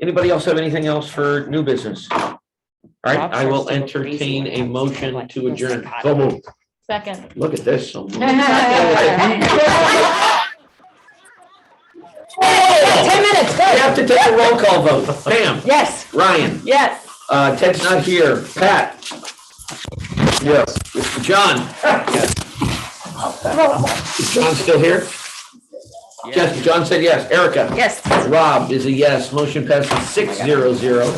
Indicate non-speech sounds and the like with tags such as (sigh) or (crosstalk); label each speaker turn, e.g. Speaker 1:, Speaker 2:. Speaker 1: Anybody else have anything else for new business? All right,
Speaker 2: Rob
Speaker 1: I will
Speaker 2: tries to look breezy
Speaker 1: entertain
Speaker 2: when it
Speaker 1: a
Speaker 2: comes to
Speaker 1: motion
Speaker 2: what
Speaker 1: to
Speaker 2: was
Speaker 1: adjourn.
Speaker 2: said.
Speaker 1: So moved. (laughs)
Speaker 3: Second.
Speaker 1: Look at this. so moved.
Speaker 2: Ten minutes,
Speaker 1: We
Speaker 2: go.
Speaker 1: have to take a roll call vote. Sam,
Speaker 2: Yes.
Speaker 1: Ryan,
Speaker 3: Yes.
Speaker 1: uh, Ted's not here. Pat? Yes. John? Is John still here? Yes, John said yes. Erica?
Speaker 2: Yes.
Speaker 1: Rob is a yes. Motion passes six zero zero.